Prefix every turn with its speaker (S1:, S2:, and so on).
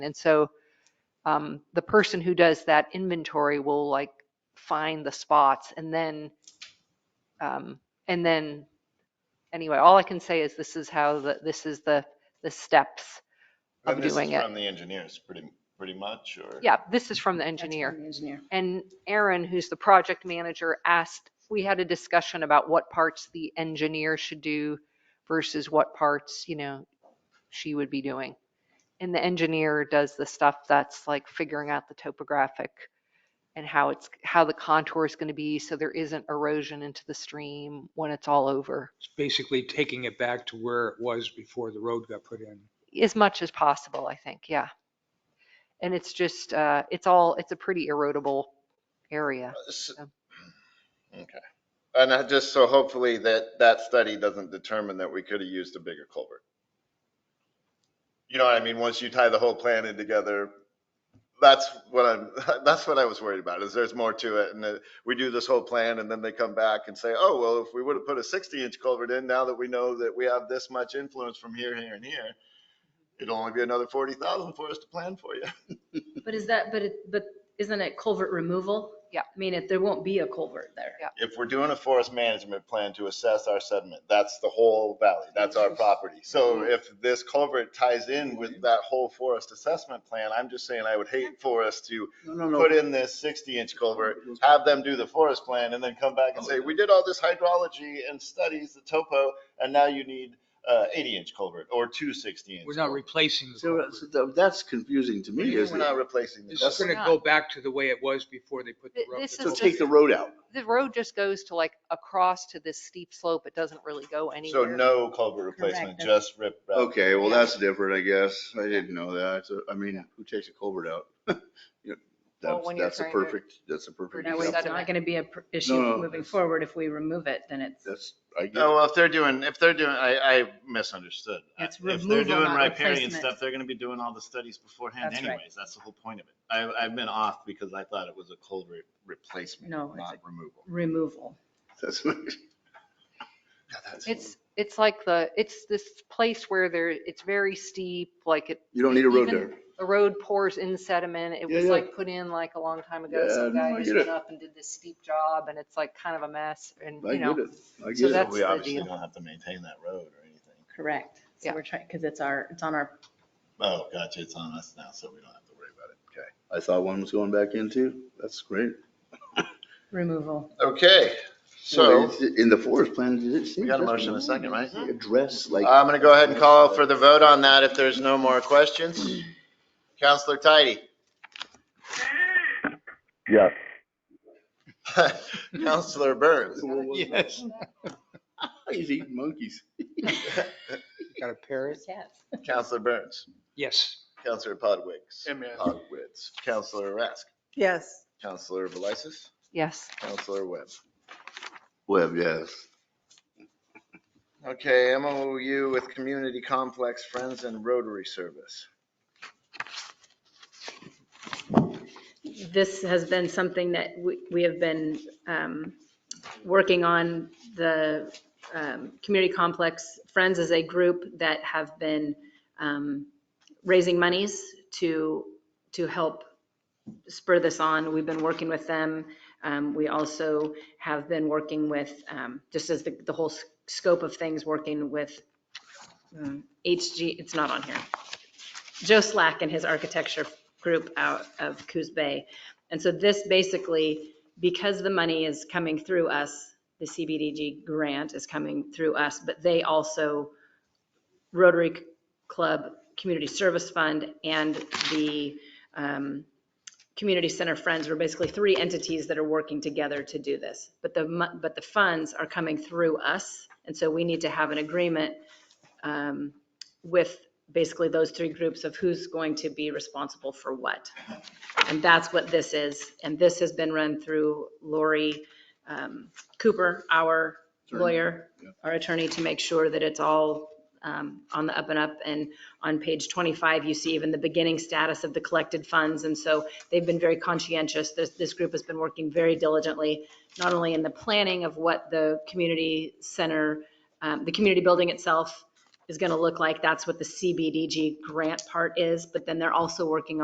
S1: And so um, the person who does that inventory will like find the spots and then, um, and then, anyway, all I can say is this is how the, this is the, the steps of
S2: And this is
S1: doing it.
S2: From the engineers, pretty, pretty much, or?
S1: Yeah, this is from the
S3: That's from
S1: engineer.
S3: the Engineer.
S1: And Aaron, who's the project manager, asked, we had a discussion about what parts the engineer should do versus what parts, you know, she would be doing. And the engineer does the stuff that's like figuring out the topographic and how it's, how the contour is going to be so there isn't erosion into the stream when it's all over,
S4: It's basically taking it back to where it was before the road got put in.
S1: as much as possible, I think, yeah. And it's just, uh, it's all, it's a pretty erodible area.
S2: S- Okay. And I just, so hopefully that, that study doesn't determine that we could have used a bigger culvert. You know what I mean? Once you tie the whole plan in together, that's what I'm, that's what I was worried about, is there's more to it. And that we do this whole plan and then they come back and say, oh, well, if we would have put a 60 inch culvert in, now that we know that we have this much influence from here, here and here, it'll only be another 40,000 for us to plan for you.
S3: But is that, but it, but isn't it culvert removal?
S1: Yeah.
S3: I mean, if, there won't be a culvert there.
S1: Yeah.
S2: if we're doing a forest management plan to assess our sediment, that's the whole valley, that's our property. So if this culvert ties in with that whole forest assessment plan, I'm just saying I would hate for us to
S5: No, no,
S2: put
S5: no.
S2: in this sixty inch culvert, have them do the forest plan and then come back and say, we did all this hydrology and studies, the topo, and now you need uh eighty inch culvert or two sixty inch.
S4: We're not replacing the
S5: So, uh,
S4: culvert.
S5: so tha- that's confusing to me,
S2: We're
S5: isn't it?
S2: not replacing
S4: It's
S2: this.
S4: just gonna go back to the way it was before they put the
S1: Th-
S4: road.
S1: this is
S4: the
S5: So
S4: culvert
S1: just-
S5: take the road out.
S1: the road just goes to like across to this steep slope. It doesn't really go
S2: So
S1: anywhere.
S2: no culvert replacement,
S3: Correct.
S2: just rip. rap.
S5: Okay, well, that's different, I guess. I didn't know that. So, I mean, who takes a culvert out? You know, That's,
S1: when you're
S5: that's a
S1: trying to-
S5: perfect, that's a perfect
S3: Now, it's
S1: that's-
S5: example.
S3: not gonna be a pr- issue
S5: No, no,
S3: moving
S5: that's-
S3: forward if we remove it, then it's,
S5: That's, I get
S2: No, uh,
S5: it.
S2: Oh, well, if they're doing, if they're doing, I, I misunderstood.
S3: It's
S2: If they're
S3: removal,
S2: doing
S3: not
S2: riparian
S3: replacement.
S2: stuff, they're gonna be doing all the studies beforehand
S3: That's right.
S2: anyways. That's the whole point of it. I, I've been off because I thought it was a culvert replacement,
S3: No, it's
S2: not removal.
S3: removal.
S5: That's,
S2: Yeah, that's-
S1: It's, it's like the, it's this place where there, it's very steep, like it,
S5: you don't need a road
S1: Even-
S5: there.
S1: the road pours in sediment. It
S5: Yeah,
S1: was
S5: yeah.
S1: like put in like a long time ago.
S5: Yeah,
S1: Some
S5: no,
S1: guy
S5: I
S1: just
S5: get
S1: went
S5: it.
S1: up and did this steep job and it's like kind of a mess and,
S5: I
S1: you
S5: get
S1: know.
S5: it.
S1: So
S5: I get it.
S1: that's
S2: We
S1: the
S2: obviously
S1: deal.
S2: don't have to maintain that road or anything.
S3: Correct. So
S1: Yeah.
S3: we're trying, because it's our, it's on our,
S2: Oh, gotcha, it's on us now, so we don't have to worry about it. Okay.
S5: I thought one was going back in too. That's great.
S3: removal.
S2: Okay, so
S5: In the forest plan, did it seem?
S2: we got a
S5: just
S2: motion and a second, right?
S5: Address like.
S2: I'm gonna go ahead and call for the vote on that if there's no more questions. Counselor Tidy?
S6: Yes.
S2: Counselor Burns?
S5: Yes. He's eating monkeys.
S4: Got a parrot?
S3: Yes.
S2: Counselor Burns?
S4: Yes.
S2: Counselor Podwicks. Podwitz. Counselor Rask.
S7: Yes.
S2: Counselor Velisis.
S1: Yes.
S2: Counselor Webb.
S5: Web, yes.
S2: Okay, MOU with Community Complex Friends and Rotary Service.
S3: This has been something that we, we have been um, working on. The um, Community Complex Friends is a group that have been um, raising monies to, to help spur this on. We've been working with them. Um, We also have been working with, um, just as the, the whole s- scope of things, working with um, HG, it's not on here. Joe Slack and his architecture group out of Coos Bay. And so this basically, because the money is coming through us, the CBDG grant is coming through us, but they also, Rotary Club Community Service Fund and the um, Community Center Friends were basically three entities that are working together to do this. But the, mo- but the funds are coming through us, and so we need to have an agreement um, with basically those three groups of who's going to be responsible for what. And that's what this is, and this has been run through Lori um, Cooper, our lawyer, our attorney, to make sure that it's all um, on the up and up. And on page 25, you see even the beginning status of the collected funds. And so they've been very conscientious. This, this group has been working very diligently, not only in the planning of what the community center, um, the community building itself is going to look like. That's what the CBDG grant part is, but then they're also working